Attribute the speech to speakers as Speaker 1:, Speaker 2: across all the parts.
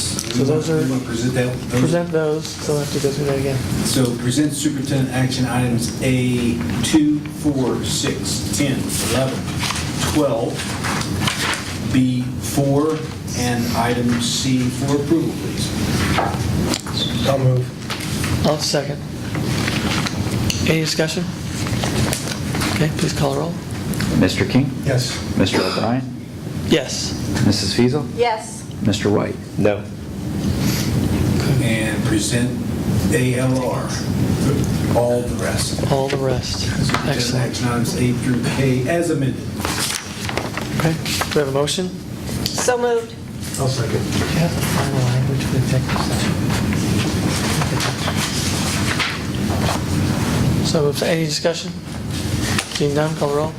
Speaker 1: So those are-
Speaker 2: You want to present that? those-
Speaker 1: Present those, so I'll have to go through that again.
Speaker 2: So present superintendent action items A 2, 4, 6, 10, 11, 12, B 4, and item C for approval, please.
Speaker 3: I'll move.
Speaker 1: I'll second. Any discussion? Okay, please call a roll.
Speaker 4: Mr. King?
Speaker 3: Yes.
Speaker 4: Mr. O'Brien?
Speaker 1: Yes.
Speaker 4: Mrs. Feasel?
Speaker 5: Yes.
Speaker 4: Mr. White?
Speaker 3: No.
Speaker 2: And present ALR, all the rest.
Speaker 1: All the rest.
Speaker 2: Superintendent
Speaker 1: Excellent.
Speaker 2: action items A through K as amended.
Speaker 1: Okay, do we have a motion?
Speaker 5: So moved.
Speaker 3: I'll second.
Speaker 1: Do you have the final language for the executive session? So, if- any discussion? Seeing none, call a roll.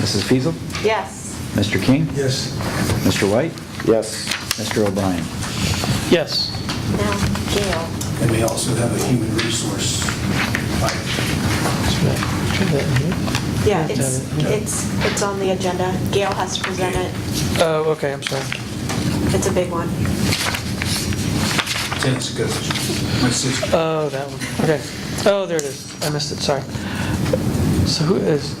Speaker 4: Mrs. Feasel?
Speaker 5: Yes.
Speaker 4: Mr. King?
Speaker 3: Yes.
Speaker 4: Mr. White?
Speaker 3: Yes.
Speaker 4: Mr. O'Brien?
Speaker 1: Yes.
Speaker 5: Now, Gail.
Speaker 2: And we also have a human resource item.
Speaker 5: Yeah, it's, it's, it's on the agenda. Gail has to present it.
Speaker 1: Oh, okay, I'm sorry.
Speaker 5: It's a big one.
Speaker 2: tennis coach, my sister.
Speaker 1: Oh, that one, okay. Oh, there it is, I missed it, sorry. So who is,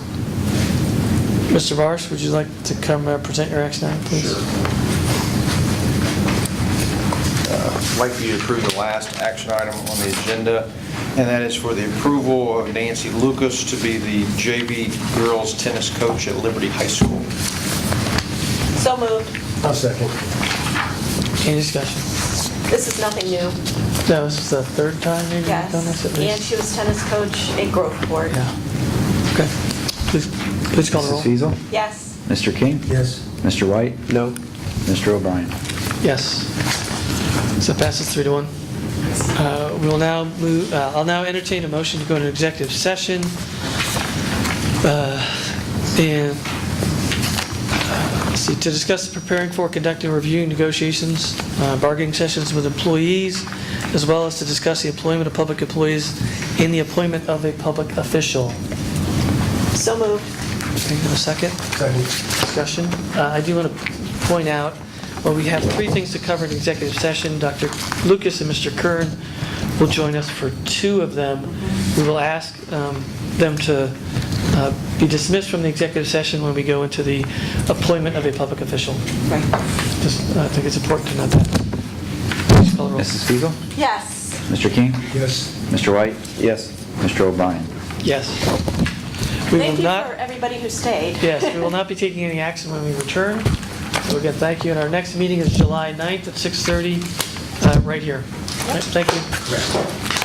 Speaker 1: Mr. Marsh, would you like to come uh, present your action item, please?
Speaker 6: I'd like for you to approve the last action item on the agenda, and that is for the approval of Nancy Lucas to be the JV girls tennis coach at Liberty High School.
Speaker 5: So moved.
Speaker 3: I'll second.
Speaker 1: Any discussion?
Speaker 5: This is nothing new.
Speaker 1: No, this is the third time maybe you've
Speaker 5: Yes.
Speaker 1: done this at
Speaker 5: And
Speaker 1: least?
Speaker 5: she was tennis coach at Groveport.
Speaker 1: Yeah. Okay, please, please call the
Speaker 4: Mrs.
Speaker 1: roll.
Speaker 4: Feasel?
Speaker 5: Yes.
Speaker 4: Mr. King?
Speaker 3: Yes.
Speaker 4: Mr. White?
Speaker 3: No.
Speaker 4: Mr. O'Brien?
Speaker 1: Yes. So it passes three to one. Uh, We will now move, uh, I'll now entertain a motion to go into executive session. uh, And, uh, let's see, to discuss preparing for conducting review negotiations, uh, bargaining sessions with employees, as well as to discuss the employment of public employees and the appointment of a public official.
Speaker 5: So moved.
Speaker 1: Can I get a second?
Speaker 3: Second.
Speaker 1: discussion. Uh, I do want to point out, well, we have three things to cover in executive session. Dr. Lucas and Mr. Kern will join us for two of them. We will ask um, them to uh, be dismissed from the executive session when we go into the appointment of a public official.
Speaker 5: Right.
Speaker 1: Just, uh, I think it's important to note that. Please call the roll.
Speaker 4: Mrs. Feasel?
Speaker 5: Yes.
Speaker 4: Mr. King?
Speaker 3: Yes.
Speaker 4: Mr. White?
Speaker 3: Yes.
Speaker 4: Mr. O'Brien?
Speaker 1: Yes. We will
Speaker 5: Thank you
Speaker 1: not-
Speaker 5: for everybody who stayed.
Speaker 1: Yes, we will not be taking any action when we return. So again, thank you, and our next meeting is July 9th at 6:30, uh, right here. Thank you.